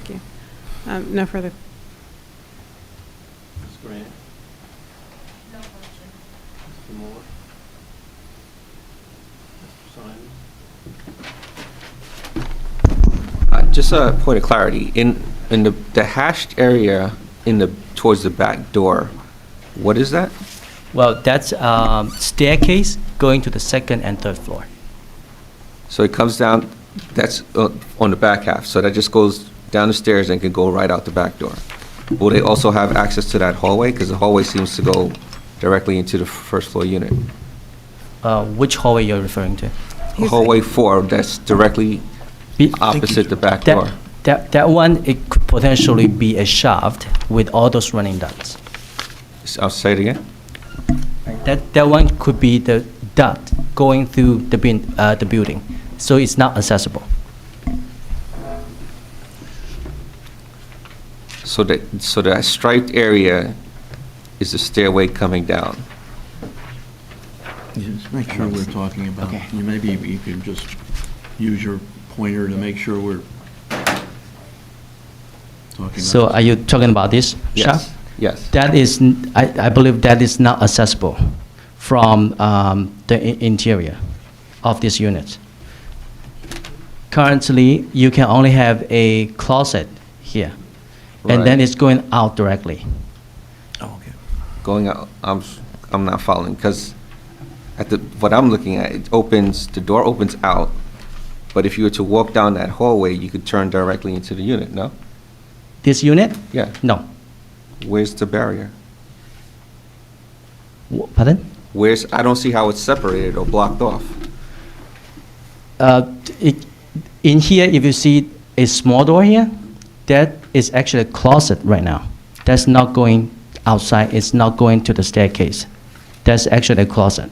Thank you. Um, No further, Ms. Grant? No question. Mr. Moore? Mr. Simon? Uh, Just a point of clarity, in, in the the hashed area in the, towards the back door, what is that? Well, that's um, staircase going to the second and third floor. So it comes down, that's uh, on the back half, so that just goes down the stairs and can go right out the back door. Will they also have access to that hallway? Because the hallway seems to go directly into the first floor unit. Uh, Which hallway you're referring to? He's- Hallway four, that's directly Be- opposite the back door. That, that, that one, it could potentially be a shaft with all those running ducts. S- I'll say it again. That, that one could be the duct going through the bin, uh, the building, so it's not accessible. So that, so that striped area is the stairway coming down. Just make sure we're talking about, Okay. you maybe you could just use your pointer to make sure we're talking about. So are you talking about this shaft? Yes. Yes. That is, n- I, I believe that is not accessible from um, the i- interior of this unit. Currently, you can only have a closet here, and then Right. it's going out directly. Oh, okay. going out, I'm, s- I'm not following, because at the, what I'm looking at, it opens, the door opens out, but if you were to walk down that hallway, you could turn directly into the unit, no? This unit? Yeah. No. Where's the barrier? W- Pardon? Where's, I don't see how it's separated or blocked off. Uh, it- In here, if you see a small door here, that is actually a closet right now. That's not going outside, it's not going to the staircase. That's actually a closet.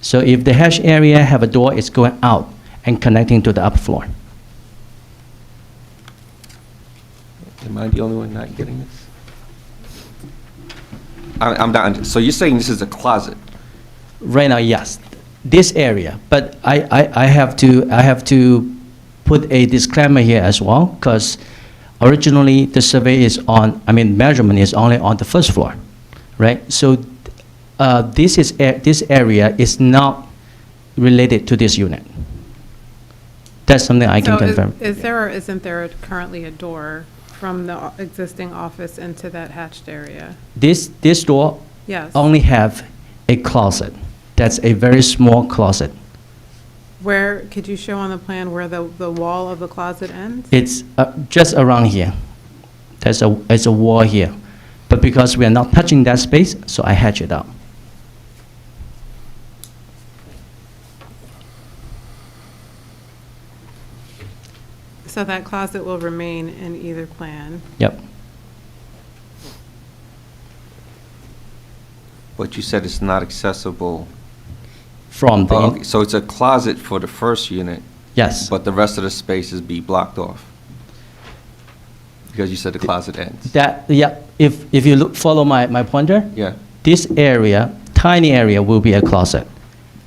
So if the hash area have a door, it's going out and connecting to the upper floor. Am I the only one not getting this? I, I'm not, under- so you're saying this is a closet? Right now, yes, this area, but I, I, I have to, I have to put a disclaimer here as well, because originally, the survey is on, I mean, measurement is only on the first floor, right? So, uh, this is, a- this area is not related to this unit. That's something I so can is confirm. is there or isn't there currently a door from the o- existing office into that hatched area? This, this door Yes. only have a closet, that's a very small closet. Where, could you show on the plan where the, the wall of the closet ends? It's uh, just around here. There's a, it's a wall here. But because we are not touching that space, so I hatch it out. So that closet will remain in either plan. Yep. But you said it's not accessible. From the, Oh, in- okay, So it's a closet for the first unit, yes. But the rest of the spaces be blocked off? Because you said the closet ends. That, yep, if, if you look, follow my, my pointer, Yeah. this area, tiny area will be a closet.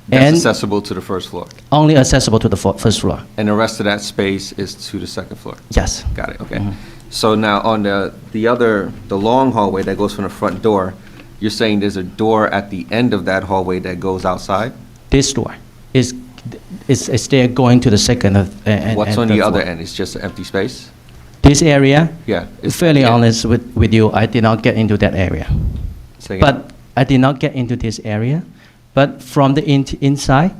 That's And accessible to the first floor. only accessible to the fir- first floor. And the rest of that space is to the second floor. Yes. Got it, okay. Mhm. So now on the, the other, the long hallway that goes from the front door, you're saying there's a door at the end of that hallway that goes outside? This door is, is is there going to the second and- and. What's and on third the other floor. end? It's just an empty space? This area? Yeah. it's- Fairly yeah. honest with, with you, I did not get into that area. Say again. But I did not get into this area. But from the in- inside,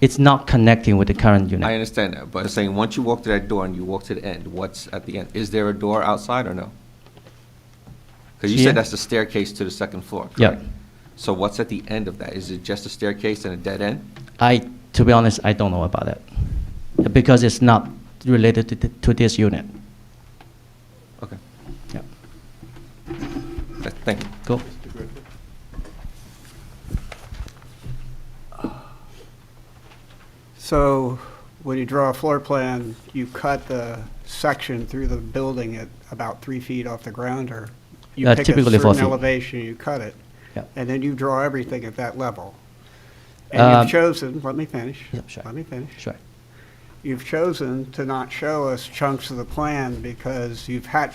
it's not connecting with the current I unit. understand that, but I'm saying, once you walk to that door and you walk to the end, what's at the end? Is there a door outside or no? Because you Yeah. said that's the staircase to the second floor, Yep. correct? So what's at the end of that? Is it just a staircase and a dead end? I, to be honest, I don't know about that because it's not related to, th- to this unit. Okay, Yep. that- thank you. Cool. So when you draw a floor plan, you cut the section through the building at about three feet off the ground, or you Uh, pick a typically four certain feet. elevation, you cut it, Yep. and then you draw everything at that level. Um, And you've chosen, let me finish. Yep, sure. Let me finish. Sure. You've chosen to not show us chunks of the plan because you've had,